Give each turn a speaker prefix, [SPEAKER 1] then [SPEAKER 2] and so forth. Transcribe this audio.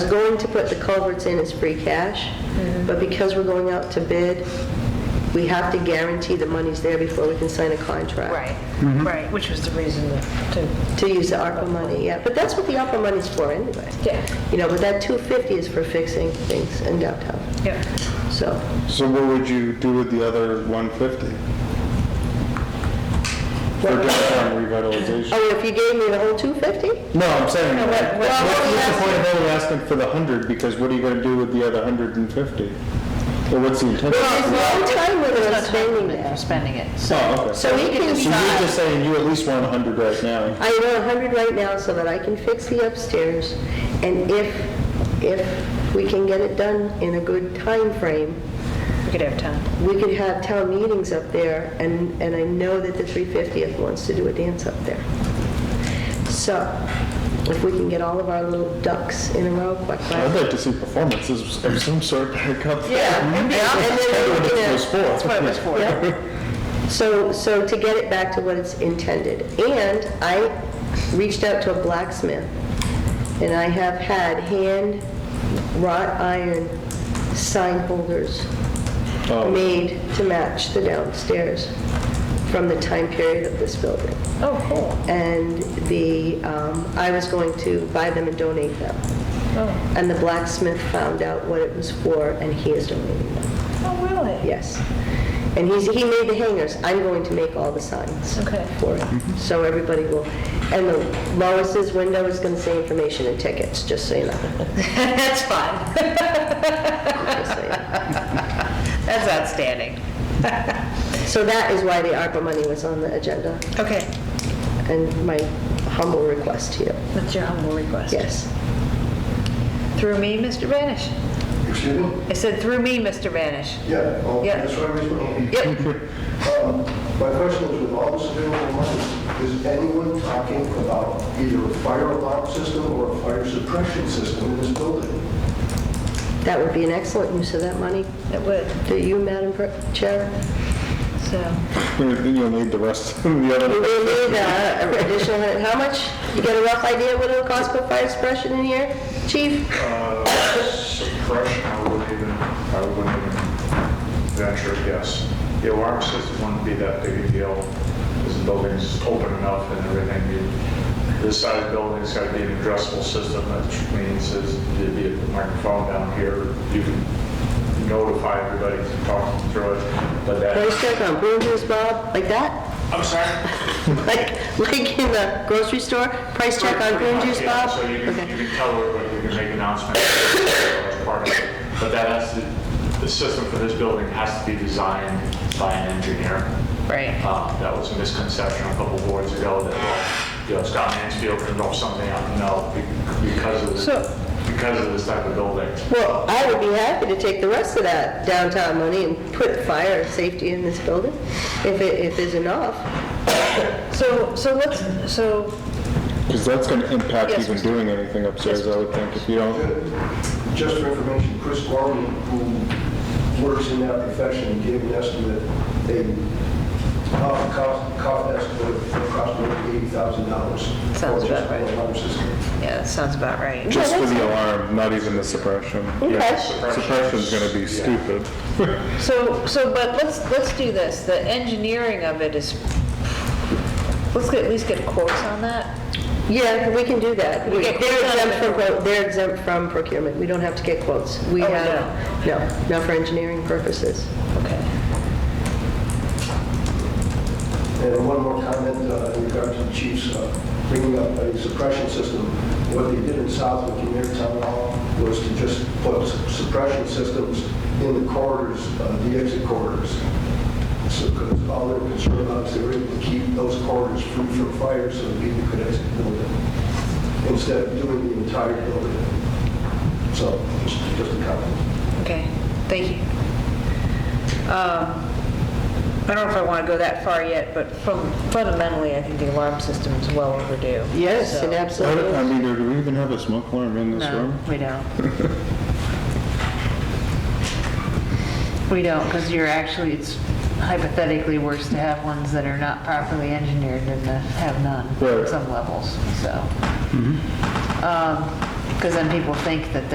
[SPEAKER 1] going to put the culverts in as free cash, but because we're going out to bid, we have to guarantee the money's there before we can sign a contract.
[SPEAKER 2] Right, right, which was the reason that- to,
[SPEAKER 1] To use the ARPA money, yeah, but that's what the ARPA money's for anyway.
[SPEAKER 2] Yeah.
[SPEAKER 1] You know, but that 250 is for fixing things in downtown,
[SPEAKER 2] yeah.
[SPEAKER 1] so.
[SPEAKER 3] So what would you do with the other 150? For downtown revitalization?
[SPEAKER 1] Oh, if you gave me the whole 250?
[SPEAKER 3] No, I'm saying,
[SPEAKER 1] No, what- what-
[SPEAKER 3] what's the point of only asking for the 100? Because what are you going to do with the other 150? Or what's the Oh, intention?
[SPEAKER 2] Oh,
[SPEAKER 1] There's no time limit on
[SPEAKER 2] There's no time
[SPEAKER 1] spending
[SPEAKER 2] limit for
[SPEAKER 1] that.
[SPEAKER 2] spending it. So
[SPEAKER 3] Oh, okay.
[SPEAKER 1] So we can
[SPEAKER 3] So you're
[SPEAKER 1] decide.
[SPEAKER 3] just saying you at least want 100 right now?
[SPEAKER 1] I owe 100 right now so that I can fix the upstairs, and if, if we can get it done in a good time frame,
[SPEAKER 2] we could have time.
[SPEAKER 1] we could have town meetings up there, and, and I know that the 350th wants to do a dance up there. So, if we can get all of our little ducks in a row quick,
[SPEAKER 3] I'd
[SPEAKER 1] right?
[SPEAKER 3] like to see performances of some sort back up there.
[SPEAKER 1] Yeah, and then- and then, you know-
[SPEAKER 3] It's for sport.
[SPEAKER 2] That's what it was for.
[SPEAKER 1] Yep. So, so to get it back to what it's intended. And I reached out to a blacksmith, and I have had hand wrought iron sign holders
[SPEAKER 3] Oh.
[SPEAKER 1] made to match the downstairs from the time period of this building.
[SPEAKER 2] Oh, cool.
[SPEAKER 1] And the, um, I was going to buy them and donate them.
[SPEAKER 2] Oh,
[SPEAKER 1] And the blacksmith found out what it was for, and he is donating them.
[SPEAKER 2] oh, really?
[SPEAKER 1] Yes. And he's, he made the hangers. I'm going to make all the signs
[SPEAKER 2] Okay.
[SPEAKER 1] for it. So everybody will, and the Lois's window is going to say information and tickets, just so you know.
[SPEAKER 2] That's fine.
[SPEAKER 1] Just so you know.
[SPEAKER 2] That's outstanding.
[SPEAKER 1] So that is why the ARPA money was on the agenda
[SPEAKER 2] Okay,
[SPEAKER 1] and my humble request to you.
[SPEAKER 2] that's your humble request.
[SPEAKER 1] Yes.
[SPEAKER 2] Through me, Mr. Vanish.
[SPEAKER 4] Excuse me?
[SPEAKER 2] I said, through me, Mr. Vanish.
[SPEAKER 4] Yeah, oh,
[SPEAKER 2] Yeah.
[SPEAKER 4] that's what I was going
[SPEAKER 2] Yep.
[SPEAKER 4] Um My question is, with all this available money, is anyone talking about either a fire alarm system or a fire suppression system in this building?
[SPEAKER 1] That would be an excellent use of that money.
[SPEAKER 2] It would,
[SPEAKER 1] Do you, Madam Per- Chair?
[SPEAKER 2] so.
[SPEAKER 3] You'll need the rest of the
[SPEAKER 1] We
[SPEAKER 3] other.
[SPEAKER 1] will need uh, an additional, how much? You got a rough idea what it'll cost for fire suppression in here? Chief?
[SPEAKER 5] Uh, suppression, I wouldn't even, I wouldn't even venture a guess. The alarm system wouldn't be that big a deal, because the building's open enough and everything. You- This size building's got to be an addressable system, which means is there'd be a microphone down here, you can notify everybody to talk through it, but
[SPEAKER 1] Price
[SPEAKER 5] that,
[SPEAKER 1] check on Booners, Bob, like that?
[SPEAKER 5] I'm sorry?
[SPEAKER 1] Like, like in the grocery store, price check on
[SPEAKER 5] Pretty
[SPEAKER 1] green
[SPEAKER 5] much,
[SPEAKER 1] juice,
[SPEAKER 5] yeah.
[SPEAKER 1] Bob?
[SPEAKER 5] So you can,
[SPEAKER 1] Okay.
[SPEAKER 5] you can tell everybody, you can make announcements as part of it. But that has to, the system for this building has to be designed by an engineer.
[SPEAKER 2] Right.
[SPEAKER 5] Uh, That was a misconception a couple boards ago that, well, you know, Scott Mansfield can know something I don't know be- because of,
[SPEAKER 2] So-
[SPEAKER 5] the- because of this type of building.
[SPEAKER 1] Well, I would be happy to take the rest of that downtown money and put fire safety in this building, if it, if there's enough.
[SPEAKER 2] So, so let's, so,
[SPEAKER 3] Because that's going to impact
[SPEAKER 2] Yes,
[SPEAKER 3] even
[SPEAKER 2] Mr.
[SPEAKER 3] doing anything upstairs, I would think, if you don't.
[SPEAKER 4] Just for information, Chris Gorman, who works in that profession, gave an estimate, they, uh, cost, cost estimate of approximately eighty thousand dollars.
[SPEAKER 2] Sounds about
[SPEAKER 4] For
[SPEAKER 2] right.
[SPEAKER 4] just an alarm system.
[SPEAKER 2] yeah, that sounds about right.
[SPEAKER 3] Just for the alarm, not even the suppression.
[SPEAKER 1] Okay.
[SPEAKER 3] Suppression's gonna be stupid.
[SPEAKER 2] So, so, but let's, let's do this, the engineering of it is, let's get- at least get quotes on that.
[SPEAKER 1] Yeah, we can do that. We-
[SPEAKER 2] We get
[SPEAKER 1] They're
[SPEAKER 2] quotes on
[SPEAKER 1] exempt from,
[SPEAKER 2] it.
[SPEAKER 1] pro- they're exempt from procurement, we don't have to get quotes. We
[SPEAKER 2] Oh,
[SPEAKER 1] have, no, not for engineering purposes.
[SPEAKER 2] Okay.
[SPEAKER 4] And one more comment uh, in regard to the chief's uh, bringing up a suppression system. What they did in Southwick in their town hall was to just put suppression systems in the corridors, uh, the exit corridors. So, because all their concern about is they were able to keep those corridors free from fire so that people could exit the building, instead of doing the entire building. So, just just a comment.
[SPEAKER 2] Okay, thank you. Um, I don't know if I want to go that far yet, but from- fundamentally, I think the alarm system is well overdue.
[SPEAKER 1] Yes,
[SPEAKER 2] So-
[SPEAKER 1] and
[SPEAKER 3] I don't- I
[SPEAKER 1] absolutely.
[SPEAKER 3] mean, do we even have a smoke alarm in this
[SPEAKER 2] No,
[SPEAKER 3] room?
[SPEAKER 2] we don't. We don't, because you're actually, it's hypothetically worse to have ones that are not properly engineered than to have none
[SPEAKER 3] Right. Mm-hmm.
[SPEAKER 2] at some levels, so. Because Um, then people think that